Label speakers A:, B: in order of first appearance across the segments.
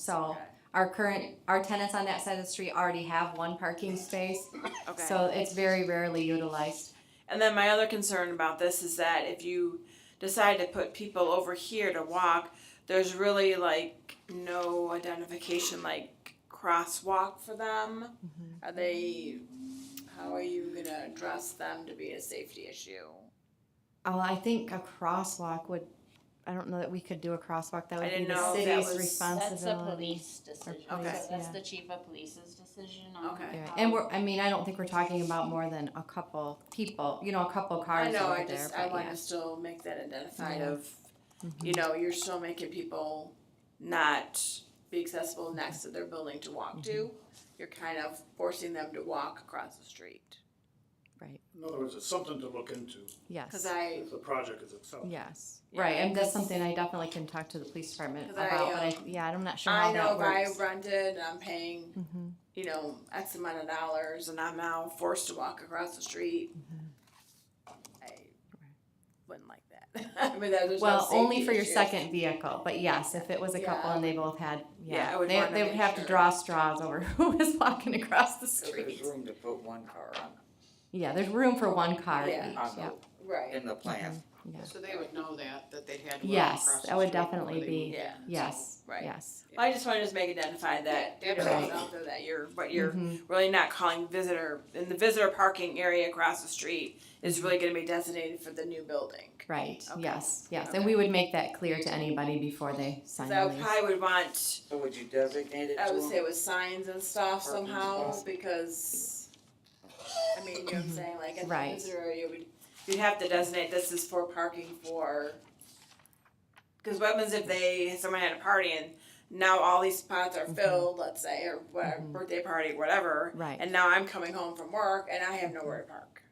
A: So our current, our tenants on that side of the street already have one parking space,
B: Okay.
A: so it's very rarely utilized.
B: And then my other concern about this is that if you decide to put people over here to walk, there's really like no identification, like crosswalk for them.
A: Mm-hmm.
B: Are they, how are you gonna address them to be a safety issue?
A: Oh, I think a crosswalk would, I don't know that we could do a crosswalk, that would be
B: didn't
A: the
B: know if that
A: city's
B: was-
C: That's the
A: responsibility.
C: police decision,
A: Okay.
C: so that's
A: Yeah.
C: the chief of police's decision on.
B: Okay.
A: Yeah,
C: how-
A: and we're, I mean, I don't think we're talking about more than a couple people, you know, a couple
B: I
A: cars
B: know, I
A: over there,
B: just, I
A: but
B: wanna
A: yeah.
B: still make that identified
A: Yeah. Mm-hmm.
B: of, you know, you're still making people not be
A: Mm-hmm.
B: accessible next to their building to walk to. You're kind of forcing them to walk across the street.
A: Right,
D: In other words, it's something to look into
B: Cause
A: yes,
B: I,
D: if the project is itself.
A: yes,
B: Yeah,
A: right, and that's
B: because-
A: something I definitely can talk to the police department
B: 'Cause I,
A: about, but I,
B: um,
A: yeah, I'm not sure
B: I
A: how
B: know
A: that
B: if I
A: works.
B: rented and I'm paying,
A: Mhm.
B: you know, X amount of dollars and I'm now forced to walk across the street.
A: Mm-hmm.
B: I wouldn't like that. I mean, that was
A: Well, only for your second vehicle, but yes, if it was a couple
B: Yeah.
A: and they both had,
B: Yeah,
A: yeah,
B: I would
A: they,
B: wanna
A: they would
B: make
A: have to
B: sure.
A: draw straws over who was walking across the
E: So there's
A: street.
E: room to put one car on,
A: Yeah, there's room for one car each,
B: Yeah.
E: on
A: yeah,
E: the,
B: Right,
E: in the plan.
A: yeah.
F: So they would know that, that they'd had. to walk
A: Yes,
F: across
A: that
F: the
A: would
F: street before
A: definitely
F: they
A: be,
B: yeah.
A: yes,
B: Right.
A: yes.
B: Well, I just wanted to just make identify that, you know,
F: Right.
B: it's out there that you're, but you're
A: Mhm.
B: really not calling visitor, and the visitor parking area across the street is really gonna be designated for the new building.
A: Right,
B: Okay.
A: yes, yes, and we would make that clear to anybody before they sign
B: So
A: the
B: I
A: lease.
B: probably would want,
E: So would you designate it to
B: I would say
E: them?
B: with signs and stuff
E: Parking
B: somehow,
E: spots.
B: because, I mean, you know what I'm saying, like, at the
A: Mm-hmm. Right.
B: visitor area, we'd, you'd have to designate this is for parking for, cause what happens if they, someone had a party and now all these spots
A: Mm-hmm.
B: are filled, let's say, or whatever, birthday party, whatever.
A: Right.
B: And now I'm coming home from work and I have nowhere to park.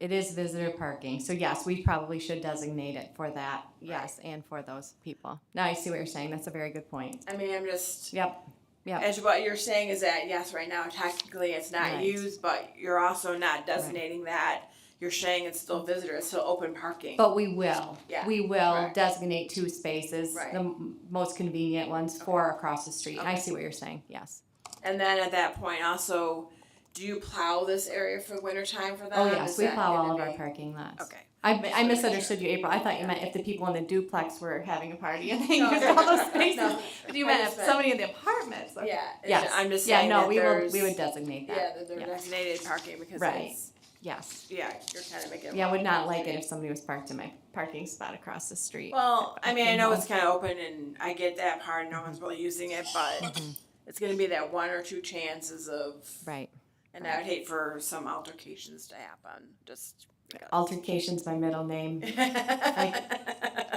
A: It is visitor parking, so yes, we probably should designate it for that, yes, and for those people. Now I see what you're saying, that's a very good point.
B: I mean, I'm just.
A: Yep, yep.
B: As what you're saying is that yes, right now technically it's not
A: Right.
B: used, but you're also not designating that. You're saying it's still visitor, it's still open parking.
A: But we will,
B: Yeah,
A: we will
B: correct.
A: designate two spaces,
B: Right.
A: the m- most convenient ones for across the street. I see what you're saying, yes.
B: and then at that point, also, do you plow this area for winter time for them?
A: Oh, yes,
B: Is
A: we
B: that
A: plow all of
B: gonna
A: our
B: be-
A: parking lots.
B: Okay.
A: I, I misunderstood you, April. I thought you meant if the people in the duplex were having a party and they
B: No,
A: used all those spaces.
B: No,
A: But you
B: I
A: meant
B: just
A: if
B: meant-
A: somebody in the apartments. okay.
B: yeah, it's
A: Yes.
B: ju- I'm just
A: Yeah,
B: saying
A: no,
B: that
A: we will,
B: there's-
A: we would designate
B: yeah,
A: that.
B: that they're
A: Yeah.
B: designated parking because
A: Right.
B: it's
A: Yes.
B: yeah, you're kind of making.
A: Yeah, would not like it if somebody was parked in my parking spot across the street.
B: Well, I mean, I
A: you
B: know
A: know.
B: it's kind of open, and I get that part. No one's really using it, but it's going to be that one or two chances of.
A: Mm-hmm. Right.
B: And I would hate for some altercations to happen, just. because.
A: Altercation's my middle name. We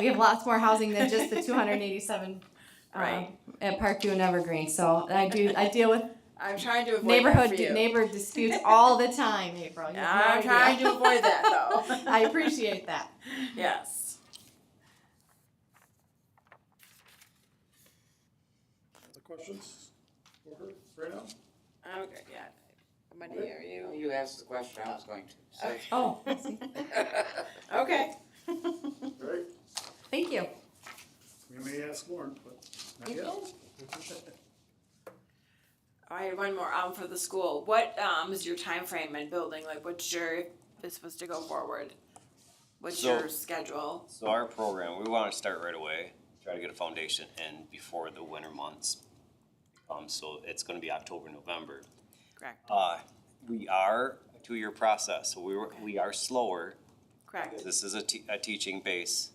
A: have lots more housing than just the two hundred and eighty-seven. um,
B: Right.
A: At Parkview and Evergreen, so I do, I deal with
B: I'm trying to avoid
A: neighborhood,
B: that for you.
A: neighbor disputes all the time, April. You have no
B: I'm trying
A: idea.
B: to avoid that though.
A: I appreciate that.
B: yes.
D: Other questions for her right now?
B: Okay. Yeah. Money, are you
E: You asked the question I was going to, so.
A: Oh,
B: okay?
D: All right,
A: thank you.
D: we may ask more, but not yet.
B: I had one more um for the school. What um is your time frame in building? Like, what's your if this was to go forward? What's
G: So-
B: your schedule?
G: So our program, we want to start right away, try to get a foundation in before the winter months. Um, so it's gonna be October, November.
B: Correct.
G: Uh, we are a two-year process, so we were, we are slower.
B: Correct.
G: This is a te- a teaching base,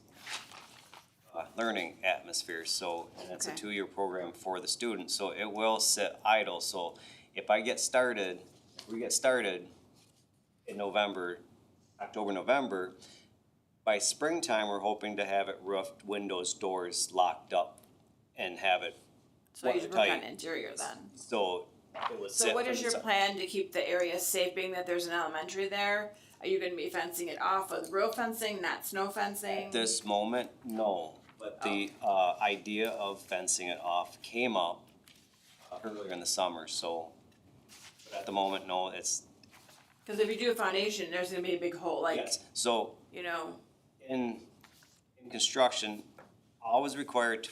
G: uh, learning atmosphere, so and it's a
B: Okay.
G: two-year program for the students, so it will sit idle, so if I get started, if we get started in November, October, November, by springtime, we're hoping to have it roofed, windows, doors locked up, and have it,
B: So you
G: Watertight.
B: work on interior then.
G: so it would sit.
B: So what
G: for
B: is
G: the
B: your
G: sum-
B: plan to keep the area safe, being that there's an elementary there? Are you gonna be fencing it off with row fencing, not snow fencing?
G: At this moment, no, but the, uh, idea of fencing it off came up uh, earlier in the summer, so but at the moment, no, it's,
B: Cause if you do a foundation, there's gonna be a big hole, like,
G: yes, so
B: you know,
G: in, in construction, always required to